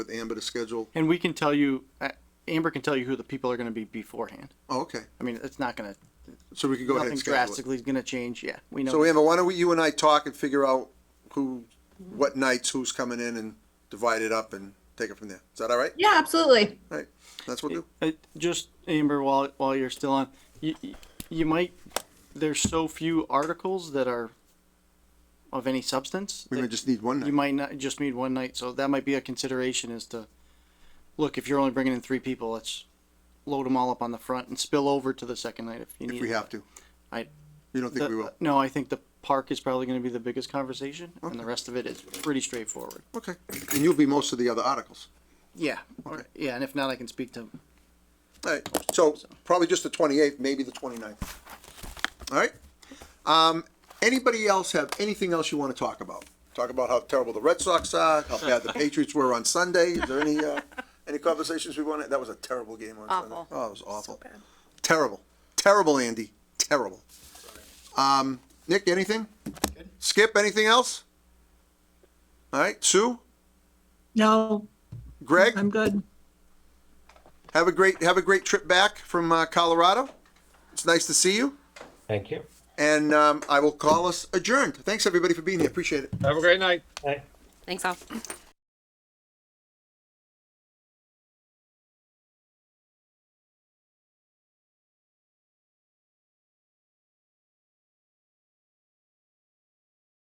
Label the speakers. Speaker 1: with Amber to schedule?
Speaker 2: And we can tell you, uh, Amber can tell you who the people are going to be beforehand.
Speaker 1: Oh, okay.
Speaker 2: I mean, it's not going to,
Speaker 1: So we can go ahead
Speaker 2: nothing
Speaker 1: and schedule it.
Speaker 2: drastically is going to change. Yeah, we know.
Speaker 1: So Amber, why don't we, you and I talk and figure out who, what nights, who's coming in and divide it up and take it from there. Is that all right?
Speaker 3: Yeah, absolutely.
Speaker 1: That's what we'll do.
Speaker 2: Uh, just Amber, while while you're still on, you you might. There's so few articles that are of any substance.
Speaker 1: We
Speaker 2: that
Speaker 1: may just need one
Speaker 2: You
Speaker 1: night.
Speaker 2: might not just need one night, so that might be a consideration. Is to look if you're only bringing in three people, let's load them all up on the front and spill over to the second night if you need.
Speaker 1: If we
Speaker 2: it.
Speaker 1: have to.
Speaker 2: I-
Speaker 1: You don't think we
Speaker 2: The-
Speaker 1: will?
Speaker 2: No, I think the park is probably going to be the biggest conversation, and the
Speaker 1: Okay.
Speaker 2: rest of it is pretty straightforward.
Speaker 1: Okay. And you'll be most of the other articles.
Speaker 2: Yeah, Or-
Speaker 1: Okay.
Speaker 2: yeah, and if not, I can speak to.
Speaker 1: All right, so probably just the twenty-eighth, maybe the 29th. All right? Um, anybody else have anything else you want to talk about? Talk about how terrible the Red Sox are, how bad the Patriots were on Sunday. Is there any, uh, any conversations we want to, that was a terrible game on Sunday.
Speaker 4: Awful.
Speaker 1: Oh, it was awful. Terrible. Terrible, Andy. Terrible. Um, Nick, anything? Skip, anything else? All right, Sue,
Speaker 3: No,
Speaker 1: Greg?
Speaker 3: I'm good.
Speaker 1: Have a great have a great trip back from uh, Colorado. It's nice to see you,
Speaker 5: Thank you.
Speaker 1: and um, I will call us adjourned. Thanks everybody for being here. Appreciate it.
Speaker 6: Have a great night.
Speaker 5: Bye.
Speaker 4: Thanks all.